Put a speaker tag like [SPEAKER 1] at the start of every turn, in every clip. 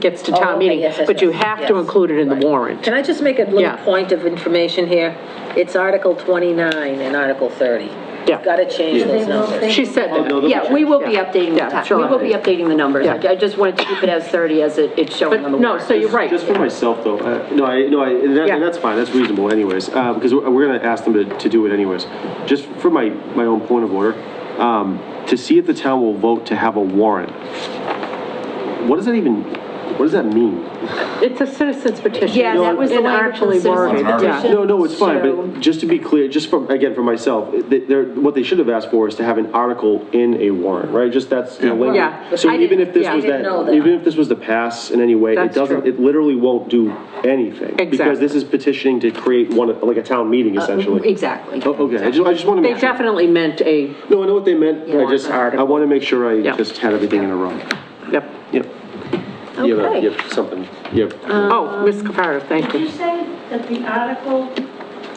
[SPEAKER 1] gets to
[SPEAKER 2] Oh,
[SPEAKER 1] town
[SPEAKER 2] okay,
[SPEAKER 1] meeting,
[SPEAKER 2] yes, yes,
[SPEAKER 1] but you
[SPEAKER 2] yes,
[SPEAKER 1] have to
[SPEAKER 2] yes.
[SPEAKER 1] include it in the
[SPEAKER 2] Right.
[SPEAKER 1] warrant.
[SPEAKER 2] Can I just make a
[SPEAKER 1] Yeah.
[SPEAKER 2] little point of information here? It's Article 29 and Article 30.
[SPEAKER 1] Yeah.
[SPEAKER 2] Got to change those numbers.
[SPEAKER 1] She said
[SPEAKER 3] no,
[SPEAKER 1] that.
[SPEAKER 3] the-
[SPEAKER 4] Yeah, we will be updating
[SPEAKER 1] Yeah,
[SPEAKER 4] the time,
[SPEAKER 1] sure.
[SPEAKER 4] we will be updating the numbers. I I just wanted to keep it as 30 as it- it's
[SPEAKER 1] But
[SPEAKER 4] showing on the
[SPEAKER 1] no,
[SPEAKER 4] warrant.
[SPEAKER 1] so you're right.
[SPEAKER 3] Just for myself, though, uh, no, I, no, I, and that-
[SPEAKER 1] Yeah.
[SPEAKER 3] and that's fine, that's reasonable anyways, uh, because we're, we're gonna ask them to, to do it anyways. Just for my, my own point of order, um, to see if the town will vote to have a warrant, what does that even, what does that mean?
[SPEAKER 1] It's a citizen's petition.
[SPEAKER 4] Yeah, that was the language of the
[SPEAKER 1] Inartfully worded,
[SPEAKER 4] citizen
[SPEAKER 1] yeah.
[SPEAKER 4] petition.
[SPEAKER 3] No, no, it's fine,
[SPEAKER 4] So-
[SPEAKER 3] but just to be clear, just for, again, for myself, th- they're, what they should have asked for is to have an article in a warrant, right? Just that's the language.
[SPEAKER 1] Yeah.
[SPEAKER 3] So
[SPEAKER 1] I
[SPEAKER 3] even
[SPEAKER 1] didn't-
[SPEAKER 3] if this
[SPEAKER 1] yeah.
[SPEAKER 3] was
[SPEAKER 1] I didn't
[SPEAKER 3] that,
[SPEAKER 2] know that.
[SPEAKER 3] even if this was to pass in any way, it
[SPEAKER 1] That's
[SPEAKER 3] doesn't,
[SPEAKER 1] true.
[SPEAKER 3] it literally won't do anything. Because
[SPEAKER 1] Exactly. Uh,
[SPEAKER 3] this is petitioning to create one, like a town meeting essentially.
[SPEAKER 4] Exactly.
[SPEAKER 3] O- Okay, I just, I just want to
[SPEAKER 1] They
[SPEAKER 3] make sure.
[SPEAKER 1] definitely meant a,
[SPEAKER 3] No, I know what they meant, I just, I
[SPEAKER 1] Article.
[SPEAKER 3] want to make sure I
[SPEAKER 1] Yeah.
[SPEAKER 3] just had everything in a row.
[SPEAKER 1] yep.
[SPEAKER 3] Yep. You have, a-
[SPEAKER 4] Okay.
[SPEAKER 3] you have something, you have,
[SPEAKER 1] Oh, Ms. Capardo, thank
[SPEAKER 5] Did you
[SPEAKER 1] you.
[SPEAKER 5] say that the article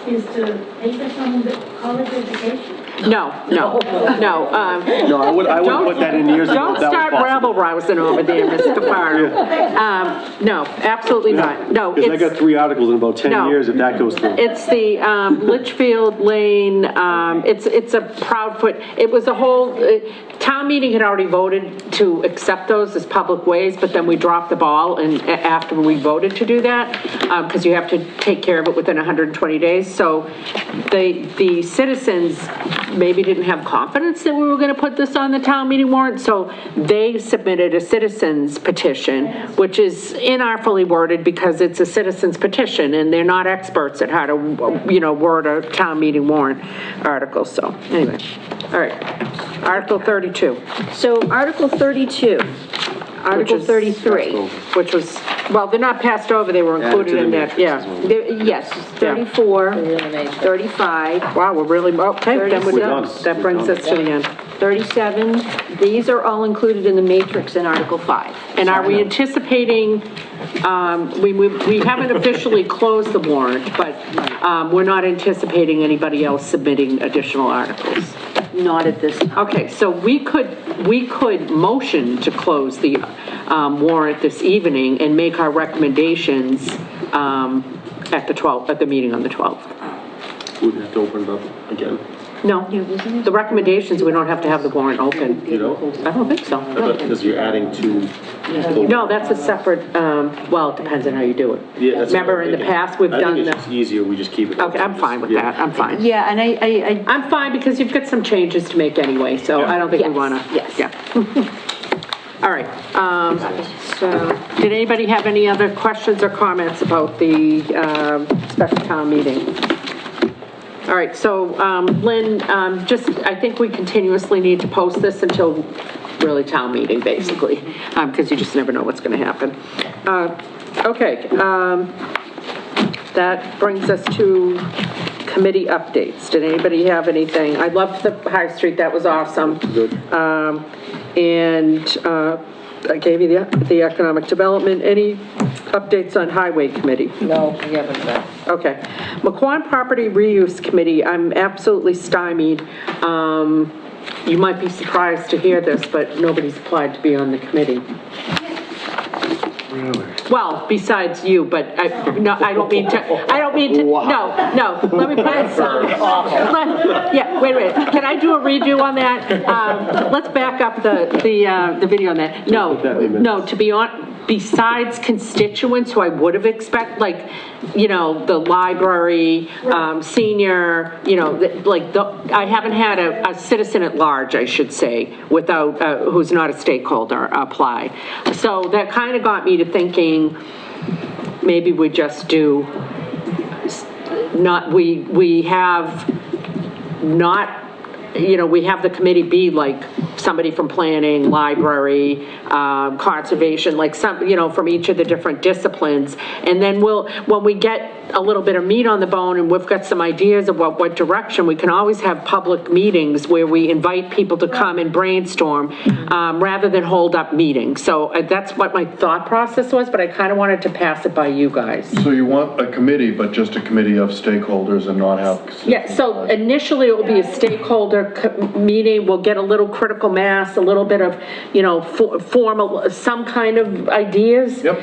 [SPEAKER 5] is to pay for someone with college education?
[SPEAKER 1] No, no, no. um,
[SPEAKER 3] no, I would, I would
[SPEAKER 1] Don't-
[SPEAKER 3] put that in years ago
[SPEAKER 1] Don't
[SPEAKER 3] if that was
[SPEAKER 1] start
[SPEAKER 3] possible.
[SPEAKER 1] rabble rousing over there, Ms. Capardo. Um, No, absolutely not. No,
[SPEAKER 3] Because I got
[SPEAKER 1] it's,
[SPEAKER 3] three articles in about 10
[SPEAKER 1] No.
[SPEAKER 3] years if that goes through.
[SPEAKER 1] it's the um, Litchfield Lane, um, it's, it's a proud foot. It was a whole, uh, town meeting had already voted to accept those as public ways, but then we dropped the ball and a- after we voted to do that, because you have to take care of it within 120 days. So the, the citizens maybe didn't have confidence that we were going to put this on the town meeting warrant, so they submitted a citizens petition, which is inartfully worded because it's a citizens petition, and they're not experts at how to, you know, word a town meeting warrant article, so, anyway. All right, Article 32,
[SPEAKER 4] So Article 32, Article
[SPEAKER 1] is-
[SPEAKER 4] 33.
[SPEAKER 1] which was, well, they're not passed over, they were
[SPEAKER 3] Added to
[SPEAKER 1] included
[SPEAKER 3] the
[SPEAKER 1] in that,
[SPEAKER 3] matrix as
[SPEAKER 1] yeah.
[SPEAKER 3] well.
[SPEAKER 4] There- Yes, 34, 35,
[SPEAKER 1] Wow, we're really, oh, okay, then we're
[SPEAKER 4] We're
[SPEAKER 1] done.
[SPEAKER 3] done.
[SPEAKER 1] That
[SPEAKER 3] We're
[SPEAKER 1] brings
[SPEAKER 3] done.
[SPEAKER 1] us to the end.
[SPEAKER 4] 37, these are all included in the matrix in Article 5.
[SPEAKER 1] And are we anticipating, um, we, we we haven't officially closed the warrant, but, um, we're not anticipating anybody else submitting additional articles.
[SPEAKER 4] Not at this time.
[SPEAKER 1] Okay, so we could, we could motion to close the, um, warrant this evening and make our recommendations, um, at the 12th, at the meeting on the 12th.
[SPEAKER 3] We'd have to open it up again.
[SPEAKER 1] No, the recommendations, we don't have to have the warrant open.
[SPEAKER 3] You know?
[SPEAKER 1] I don't think so.
[SPEAKER 3] Because you're adding two.
[SPEAKER 1] No, that's a separate, um, well, it depends on how you do it.
[SPEAKER 3] Yeah, that's what I'm
[SPEAKER 1] Remember, in the
[SPEAKER 3] thinking.
[SPEAKER 1] past, we've
[SPEAKER 3] I
[SPEAKER 1] done
[SPEAKER 3] think
[SPEAKER 1] the...
[SPEAKER 3] it's just easier, we just keep it.
[SPEAKER 1] Okay, I'm
[SPEAKER 3] open,
[SPEAKER 1] fine
[SPEAKER 3] just-
[SPEAKER 1] with
[SPEAKER 3] yeah.
[SPEAKER 1] that, I'm fine.
[SPEAKER 4] Yeah, and I, I, I-
[SPEAKER 1] I'm fine because you've got some changes to make anyway, so I don't think we
[SPEAKER 4] Yes,
[SPEAKER 1] want to.
[SPEAKER 4] yes.
[SPEAKER 1] Yeah. All right, um, so, did anybody have any other questions or comments about the, um, special town meeting? All right, so, um, Lynn, um, just, I think we continuously need to post this until really town meeting, basically, um, because you just never know what's going to happen. Uh, okay, um, that brings us to committee updates. Did anybody have anything? I loved the High Street, that was awesome. Good. And uh, I gave you the the economic development. Any updates on Highway Committee?
[SPEAKER 2] No, we haven't done.
[SPEAKER 1] Okay. McQuon Property Reuse Committee, I'm absolutely stymied. Um, You might be surprised to hear this, but nobody's applied to be on the committee. Well, besides you, but I, no, I don't mean to, I don't mean to, no, no, let me put it, let- yeah, wait a minute, can I do a redo on that? Um, Let's back up the, the, uh, the video on that. No,
[SPEAKER 3] Put that in the minutes.
[SPEAKER 1] no, to be on, besides constituents who I would have expect, like, you know, the library, um, senior, you know, the- like, the I haven't had a, a citizen at large, I should say, without, uh, who's not a stakeholder apply. So that kind of got me to thinking, maybe we just do, s- not, we, we have not, you know, we have the committee be like somebody from planning, library, um, conservation, like some, you know, from each of the different disciplines. And then we'll, when we get a little bit of meat on the bone and we've got some ideas of what, what direction, we can always have public meetings where we invite people to come and brainstorm, um, rather than hold up meetings. So uh, that's what my thought process was, but I kind of wanted to pass it by you guys.
[SPEAKER 6] So you want a committee, but just a committee of stakeholders and not have.
[SPEAKER 1] Yeah, so initially it will be a stakeholder co- meeting, we'll get a little critical mass, a little bit of, you know, fo- formal, some kind of ideas.
[SPEAKER 6] Yep.